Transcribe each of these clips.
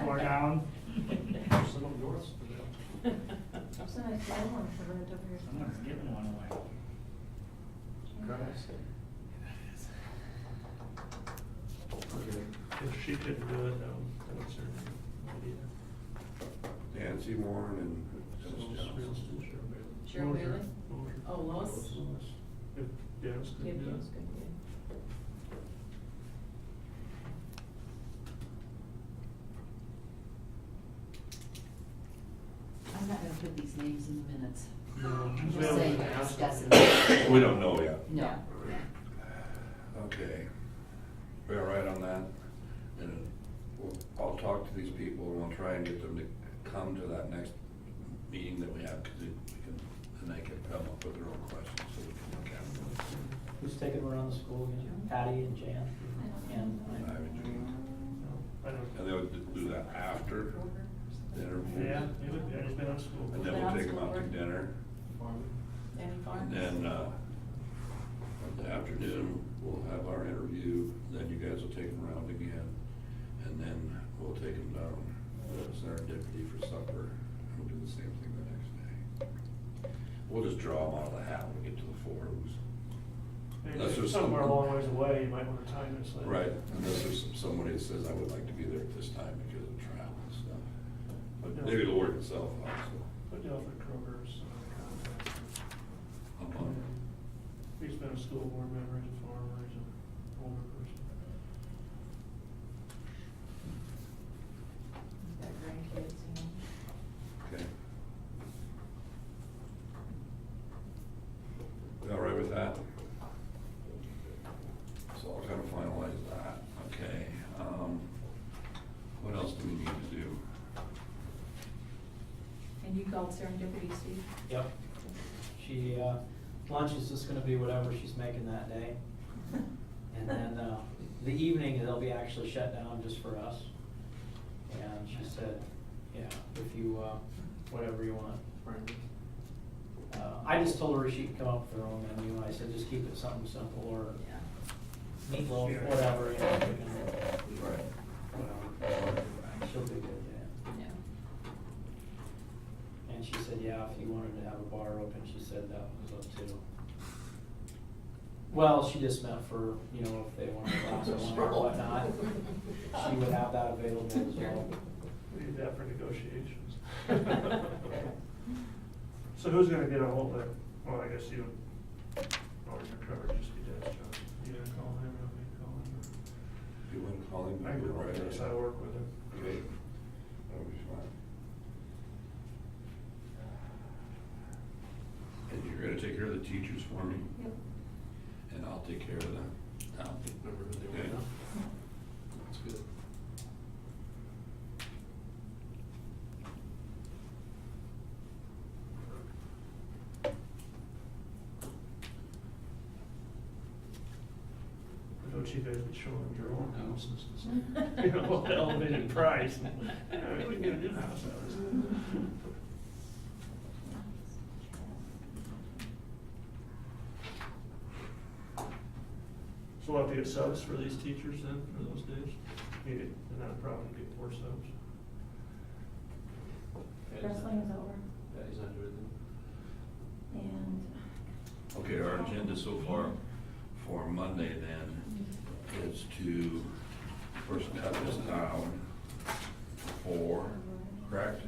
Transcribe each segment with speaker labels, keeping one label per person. Speaker 1: are down.
Speaker 2: Some of yours for them.
Speaker 3: It's a nice little one for rent over here.
Speaker 1: Someone's giving one away.
Speaker 2: Guys. Okay.
Speaker 4: If she couldn't do it, um, that would certainly be an
Speaker 5: Nancy Warren and
Speaker 4: idea.
Speaker 5: Dennis Johnson.
Speaker 3: Cheryl Bailey?
Speaker 4: Lois.
Speaker 3: Oh, Lois?
Speaker 4: If Dennis
Speaker 3: Yeah,
Speaker 4: could do
Speaker 3: Jim's
Speaker 4: it.
Speaker 3: good, yeah.
Speaker 6: I'm not gonna put these names in the minutes.
Speaker 4: No.
Speaker 6: I'm
Speaker 4: Well,
Speaker 6: just saying,
Speaker 4: yeah.
Speaker 6: discussing.
Speaker 5: We don't know yet.
Speaker 6: No.
Speaker 5: Okay. We all right on that? And we'll, I'll talk to these people and we'll try and get them to come to that next meeting that we have, cause it- we can, then they can come up with their own questions, so we can look at them.
Speaker 7: Who's taking around the school again? Patty and Jan? And
Speaker 5: I would do-
Speaker 4: I don't-
Speaker 5: And they would do that after the interview.
Speaker 4: Yeah, it would, be- it's been on school.
Speaker 5: And then we'll take them out to dinner,
Speaker 3: Any farms?
Speaker 5: and then, uh, in the afternoon, we'll have our interview, then you guys will take them around again, and then we'll take them down to Serendipity for supper, and we'll do the same thing the next day. We'll just draw them out of the hat when we get to the forums.
Speaker 4: If
Speaker 5: Unless
Speaker 4: it's
Speaker 5: there's
Speaker 4: Somewhere a
Speaker 5: some-
Speaker 4: long ways away, you might wanna time it slightly.
Speaker 5: Right, unless there's somebody that says, I would like to be there at this time because of travel and stuff. But maybe it'll work itself out, so.
Speaker 4: Put down for Kroger's, uh, contact.
Speaker 5: I'm on it.
Speaker 4: He's been a school board member, he's a farmer, he's an older person.
Speaker 3: Got grandkids, you know.
Speaker 5: Okay. We all right with that? So I'll kind of finalize that, okay. um, What else do we need to do?
Speaker 3: And you called serendipity, Steve?
Speaker 7: Yep. She, uh, lunch is just gonna be whatever she's making that day. And then, uh, the evening, they'll be actually shut down just for us. And she said, yeah, if you, uh, whatever you want. Uh, I just told her she could come up with her own menu, I said, just keep it something simple or
Speaker 3: Yeah.
Speaker 7: meatloaf, whatever, you know, chicken,
Speaker 5: Right.
Speaker 7: whatever. She'll be good, yeah.
Speaker 3: Yeah.
Speaker 7: And she said, yeah, if you wanted to have a bar open, she said that was up to. Well, she just meant for, you know, if they wanted a glass of wine or whatnot, she would have that available as well.
Speaker 4: We need that for negotiations. So who's gonna get a hold of, well, I guess you, or your Kroger, just be Dennis Johnson. You gonna call him, or me call him?
Speaker 5: You want to call him?
Speaker 4: or- I can,
Speaker 5: Right.
Speaker 4: yes, I work with him.
Speaker 5: Okay. That'll be fine. And you're gonna take care of the teachers for me?
Speaker 3: Yep.
Speaker 5: And I'll take care of the, I'll take number of the.
Speaker 2: were now.
Speaker 5: That's good.
Speaker 4: I know you guys be showing your own houses, you know, at elevated price. Yeah, We can get a new house out of this. So we'll have to get subs for these teachers then, for those days? Need it, and that'll probably get four subs.
Speaker 3: Wrestling is over,
Speaker 2: Patty's not doing it.
Speaker 3: and.
Speaker 5: Okay, our agenda so far for Monday
Speaker 3: um,
Speaker 5: then is to first cut this down to four, correct?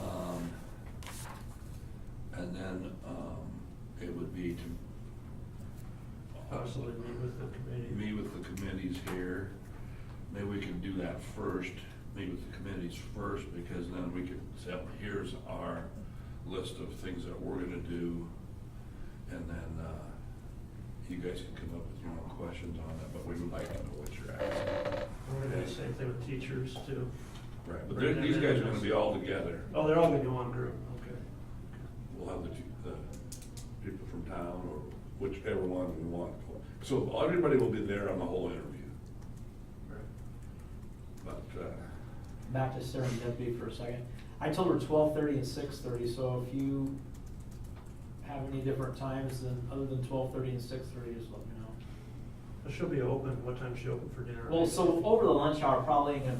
Speaker 5: Um, And then, um, it would be to
Speaker 4: Possibly meet with the committee.
Speaker 5: meet with the committees here. Maybe we can do that first, meet with the committees first, because then we could say, well, here's our list of things that we're gonna do. And then, uh, you guys can come up with your own questions on it, but we would like to know what you're asking.
Speaker 4: We're gonna do the same thing with teachers too.
Speaker 5: Right, but they're- these guys are gonna be all together.
Speaker 4: Oh, they're all gonna be one group, okay.
Speaker 5: We'll have the, two- the people from town or whichever one we want. So everybody will be there on the whole interview,
Speaker 4: Right.
Speaker 5: but, uh,
Speaker 7: Back to serendipity for a second. I told her twelve thirty and six thirty, so if you have any different times than, other than twelve thirty and six thirty, just let me know.
Speaker 4: She'll be open, what time's she open for dinner?
Speaker 7: Well, so over the lunch hour, probably ain't gonna